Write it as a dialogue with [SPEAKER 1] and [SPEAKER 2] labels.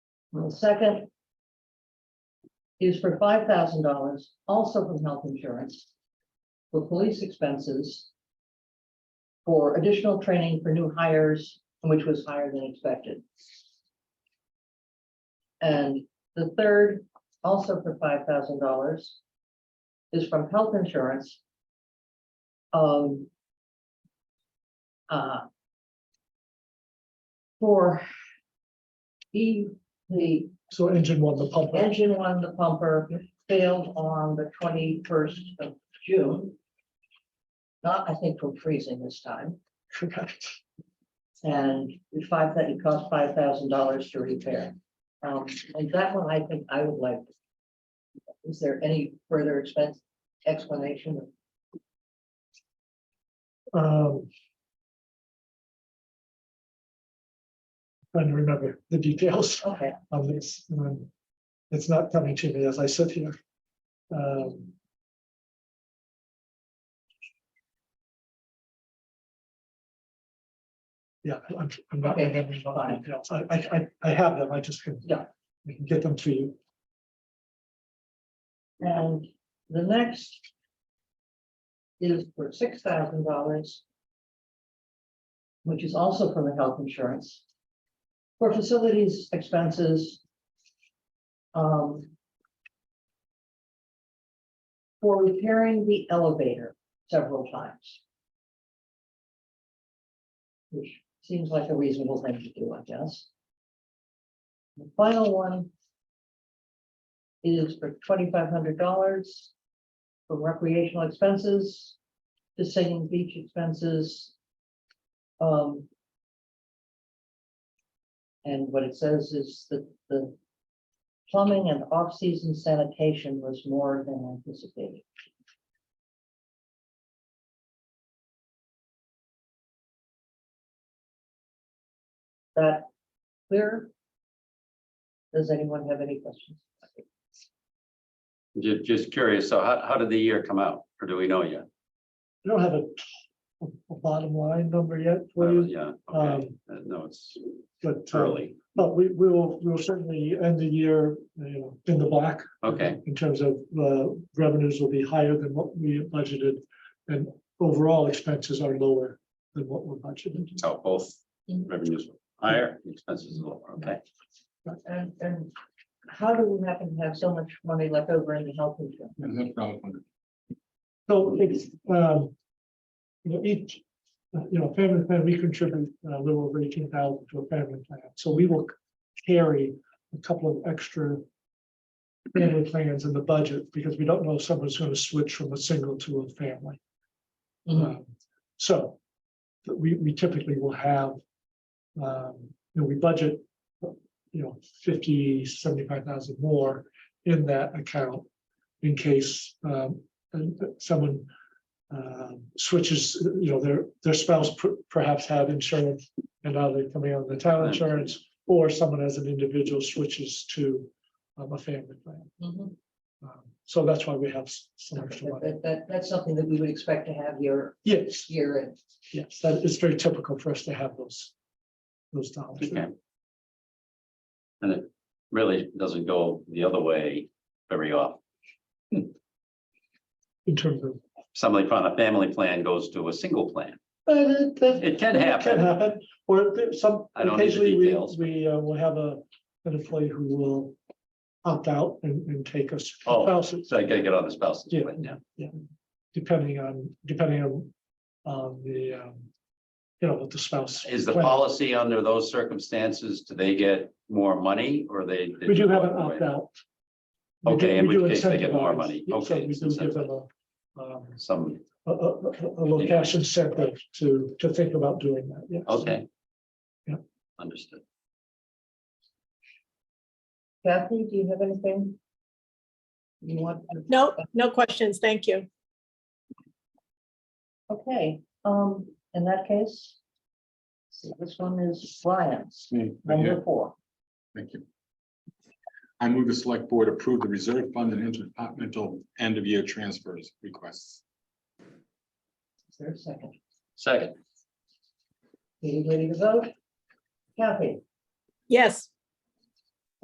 [SPEAKER 1] The second is for five thousand dollars, also from health insurance, for police expenses, for additional training for new hires, which was higher than expected. And the third, also for five thousand dollars, is from health insurance. Um. uh, For E, the
[SPEAKER 2] So engine one, the pump.
[SPEAKER 1] engine one, the pumper failed on the twenty-first of June. Not, I think, from freezing this time, and it's five, that it cost five thousand dollars to repair. Um, and that one, I think I would like. Is there any further expense explanation?
[SPEAKER 2] Um. Trying to remember the details
[SPEAKER 1] Okay,
[SPEAKER 2] of this. um, It's not coming to me as I sit here. Um, Yeah, I'm, I'm not
[SPEAKER 1] Okay,
[SPEAKER 2] remembering all the
[SPEAKER 1] fine.
[SPEAKER 2] details. I, I, I- I have them. I just can.
[SPEAKER 1] Yeah.
[SPEAKER 2] I can get them to you.
[SPEAKER 1] and the next. Is for six thousand dollars. Which is also from the health insurance. For facilities expenses. Um. For repairing the elevator several times. Which seems like a reasonable thing to do, I guess. The final one is for twenty-five hundred dollars for recreational expenses, to singing beach expenses. Um. And what it says is that the plumbing and off-season sanitation was more than anticipated. That clear? Does anyone have any questions?
[SPEAKER 3] Just, just curious, so how, how did the year come out, or do we know yet?
[SPEAKER 2] I don't have a a bottom line number yet
[SPEAKER 3] Uh,
[SPEAKER 2] for you,
[SPEAKER 3] Yeah, okay,
[SPEAKER 2] Mm, um,
[SPEAKER 3] Uh, no, it's
[SPEAKER 2] but. uh,
[SPEAKER 3] early,
[SPEAKER 2] But we we will, we will certainly end the year, you know, in the black.
[SPEAKER 3] okay,
[SPEAKER 2] In terms of uh, revenues will be higher than what we budgeted and overall expenses are lower than what we're budgeted.
[SPEAKER 3] so both
[SPEAKER 1] Mhm.
[SPEAKER 3] revenues were higher, expenses were lower, okay.
[SPEAKER 1] And, and how do we happen to have so much money left over in the health insurance?
[SPEAKER 4] And that's what I was wondering.
[SPEAKER 2] So it's, um, you know, each, uh, you know, family plan, we contribute uh, a little over eighteen thousand to a family plan. So we will carry a couple of extra family plans in the budget because we don't know if someone's going to switch from a single to a family. Um, So but we, we typically will have, um, you know, we budget, you know, 50, 75,000 more in that account in case um, and that someone um, switches, you know, their, their spouse per- perhaps had insurance and now they're coming on the town insurance, or someone as an individual switches to um, a family plan.
[SPEAKER 1] Mhm.
[SPEAKER 2] Um, So that's why we have s- some extra
[SPEAKER 1] That,
[SPEAKER 2] money.
[SPEAKER 1] that- that- that's something that we would expect to have year,
[SPEAKER 2] Yes.
[SPEAKER 1] year in.
[SPEAKER 2] Yes, that is very typical for us to have those, those dollars.
[SPEAKER 3] Okay. And it really doesn't go the other way very often.
[SPEAKER 2] In terms of,
[SPEAKER 3] Somebody from a family plan goes to a single plan,
[SPEAKER 2] but it, uh, that.
[SPEAKER 3] It can happen.
[SPEAKER 2] Can happen, or there- some,
[SPEAKER 3] I don't need the
[SPEAKER 2] occasionally we,
[SPEAKER 3] details.
[SPEAKER 2] we uh, will have a, an employee who will opt out and, and take us
[SPEAKER 3] Oh.
[SPEAKER 2] spouses,
[SPEAKER 3] so I gotta get on the spouse's
[SPEAKER 2] Yeah.
[SPEAKER 3] plan now.
[SPEAKER 2] depending on, depending on, on the, um, you know, what the spouse.
[SPEAKER 3] Is the
[SPEAKER 2] plan.
[SPEAKER 3] policy under those circumstances, do they get more money, or they? they
[SPEAKER 2] We do
[SPEAKER 3] just
[SPEAKER 2] have
[SPEAKER 3] walk
[SPEAKER 2] an
[SPEAKER 3] away?
[SPEAKER 2] opt out.
[SPEAKER 3] Okay, in which case they get more money. Okay,
[SPEAKER 2] We
[SPEAKER 3] it's
[SPEAKER 2] do give them
[SPEAKER 3] incentive.
[SPEAKER 2] a, um,
[SPEAKER 3] Some,
[SPEAKER 2] a, a, a- a little cash incentive to, to think about doing that, yes.
[SPEAKER 3] okay.
[SPEAKER 2] Yeah.
[SPEAKER 3] Understood.
[SPEAKER 1] Kathy, do you have anything? You want? to-
[SPEAKER 5] No, no questions. Thank you.
[SPEAKER 1] Okay, um, in that case. so this one is Brian's,
[SPEAKER 4] Yeah,
[SPEAKER 1] number four.
[SPEAKER 4] Thank you. I move the select board approve the reserve fund and interdepartmental end of year transfers requests.
[SPEAKER 1] Is there a second?
[SPEAKER 3] Second,
[SPEAKER 1] Are you ready to vote? Kathy,
[SPEAKER 5] Yes,